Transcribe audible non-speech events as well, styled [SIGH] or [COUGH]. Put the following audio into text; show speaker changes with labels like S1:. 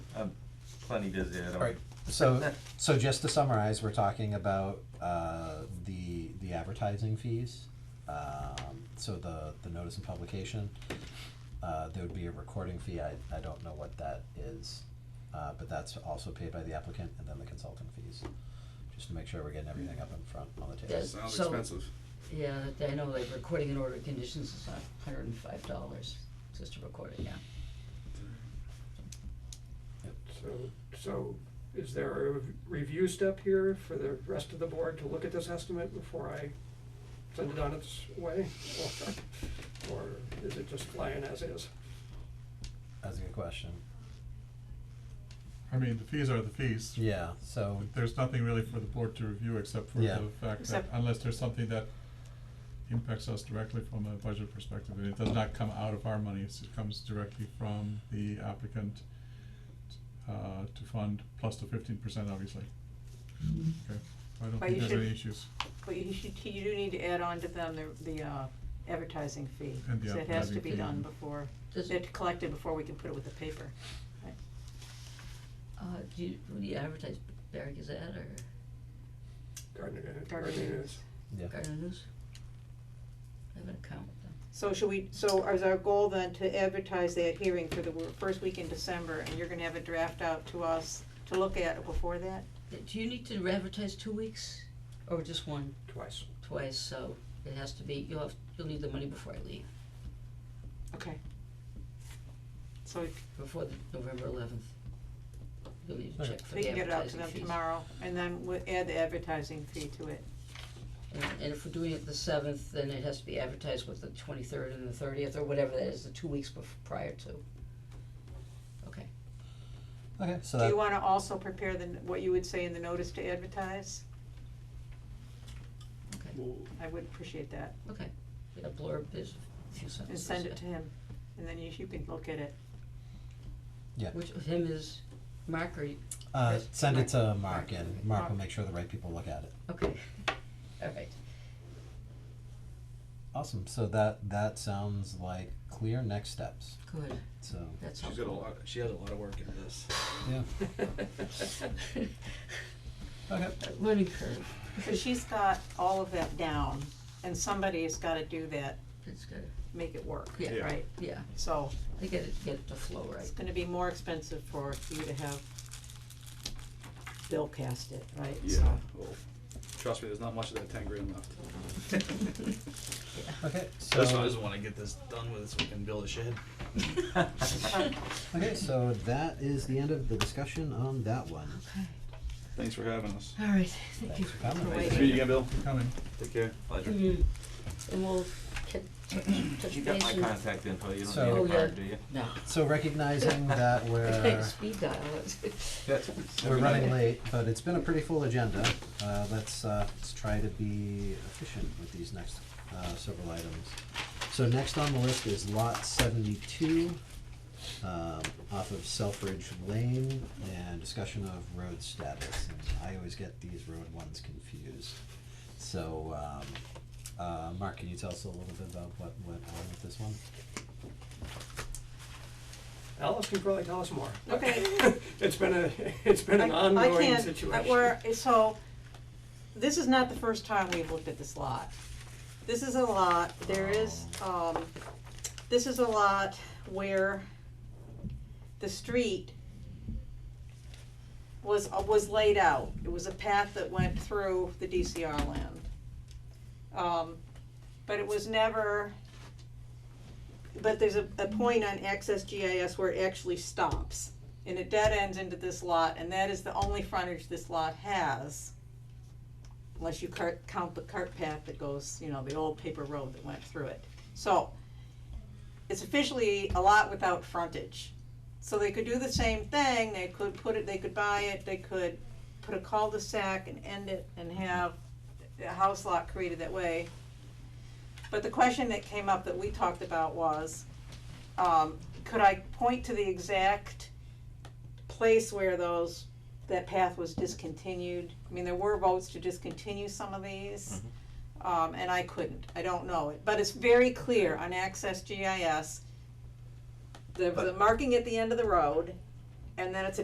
S1: plenty busy, I don't.
S2: Right, so, so just to summarize, we're talking about, uh, the, the advertising fees. Um, so the, the notice and publication, uh, there would be a recording fee, I, I don't know what that is. Uh, but that's also paid by the applicant and then the consulting fees, just to make sure we're getting everything up in front on the table.
S3: Does-
S4: Sounds
S3: so-
S4: expensive.
S3: Yeah, that- I know, like recording an order of conditions is a hundred and five dollars, just to record it, yeah.
S5: So, so is there a rev- review step here for the rest of the board to look at this estimate before I send it on its way? Or, or is it just flying as is?
S2: That's a good question,
S6: I mean, the fees are the fees.
S2: yeah, so,
S6: There's nothing really for the board to review except for
S2: Yeah.
S6: the fact that
S7: Except-
S6: unless there's something that impacts us directly from a budget perspective, and it does not come out of our money, it's- it comes directly from the applicant uh, to fund plus the fifteen percent, obviously. Okay, I don't
S7: But
S6: think
S7: you
S6: there's any
S7: should-
S6: issues.
S7: But you should, you do need to add on to them the, the uh, advertising fee.
S6: And the
S7: 'cause It has to
S6: advertising
S7: be
S6: fee.
S7: done before,
S3: Does-
S7: they're collected before we can put it with the paper. right?
S3: Uh, do you, do you advertise Barry Gazette or
S5: Gardner, Gardner
S7: Gardner
S5: News.
S2: yeah.
S3: Gardner News? I have an account with them.
S7: So should we, so is our goal then to advertise that hearing for the wor- first week in December, and you're gonna have a draft out to us to look at before that?
S3: Uh, Do you need to advertise two weeks or just one,
S5: twice.
S3: twice, so it has to be, you'll have, you'll need the money before I leave,
S7: Okay. So if-
S3: before the November eleventh. You'll need to
S2: Okay.
S3: check for
S7: we
S3: the
S7: can get it out to
S3: advertising
S7: them
S3: fees.
S7: tomorrow, and then we'll add the advertising fee to it.
S3: And, and if we're doing it the seventh, then it has to be advertised with the twenty-third and the thirtieth, or whatever that is, the two weeks bef- prior to. Okay,
S2: Okay, so
S7: Do
S2: that,
S7: you wanna also prepare the, n- what you would say in the notice to advertise?
S3: okay,
S4: Well,
S7: I would appreciate that,
S3: okay, yeah, blurb, there's a few
S7: and
S3: sentences.
S7: send it to him, and then you, you can look at it.
S2: yeah,
S3: Which of him is Mark or, you-
S2: uh,
S3: Chris?
S2: send it to
S3: Mark.
S2: Mark and Mark will make sure the right people look at it.
S3: okay, [LAUGHS] alright,
S2: Awesome, so that, that sounds like clear next steps,
S3: good,
S2: so,
S3: that's
S4: She's got a
S3: helpful.
S4: lot, she has a lot of work in this.
S2: yeah,
S3: [LAUGHS]
S2: okay.
S3: Learning curve,
S7: So she's got all of that down, and somebody's gotta do that,
S3: it's good,
S7: make it work,
S3: Yeah. Yeah.
S7: right?
S3: yeah,
S7: So,
S3: I get it, get it to flow right,
S7: [LAUGHS] it's gonna be more expensive for you to have Bill cast it, right?
S4: Yeah, well, trust me, there's not much of that ten grand left.
S2: Okay,
S4: That's why I
S2: so,
S4: just wanna get this done with, so we can build a shed.
S2: okay, so that is the end of the discussion on that one.
S4: Thanks for having us.
S3: alright, thank you.
S2: Thanks for coming.
S3: Wait.
S4: Nice to meet you again, Bill.
S6: Coming.
S4: Take care. Pleasure.
S3: Mm, And we'll get, touch
S1: You got
S3: base
S1: my
S3: and-
S1: contact info, you
S2: So-
S1: don't
S3: Oh,
S1: need a
S3: yeah.
S1: card, do you?
S3: No.
S2: So recognizing that we're,
S3: [LAUGHS] Speed dial it.
S2: we're running late, but it's been a pretty full agenda, uh, let's, uh, let's try to be efficient with these next, uh, several items. So next on the list is lot seventy-two, um, off of Selfridge Lane, and discussion of road status, and I always get these road ones confused. So, um, uh, Mark, can you tell us a little bit about what went on with this one?
S5: Alice can probably tell us more.
S7: Okay.
S5: [LAUGHS] It's been a, it's been an
S7: I- I
S5: ongoing
S7: can't- I-
S5: situation.
S7: we're- so, this is not the first time we've looked at this lot. This is a lot, there is, um, this is a lot where the street was, uh, was laid out. It was a path that went through the DCR land. Um, but it was never, but there's a, a point on access GIS where it actually stops and it dead ends into this lot, and that is the only frontage this lot has. Unless you cart, count the cart path that goes, you know, the old paper road that went through it. So, it's officially a lot without frontage. So they could do the same thing, they could put it, they could buy it, they could put a cul-de-sac and end it and have a house lot created that way. But the question that came up that we talked about was, um, could I point to the exact place where those, that path was discontinued. I mean, there were votes to discontinue some of these, um, and I couldn't, I don't know it, but it's very clear on Access GIS. The, the marking at the end of the road, and then it's a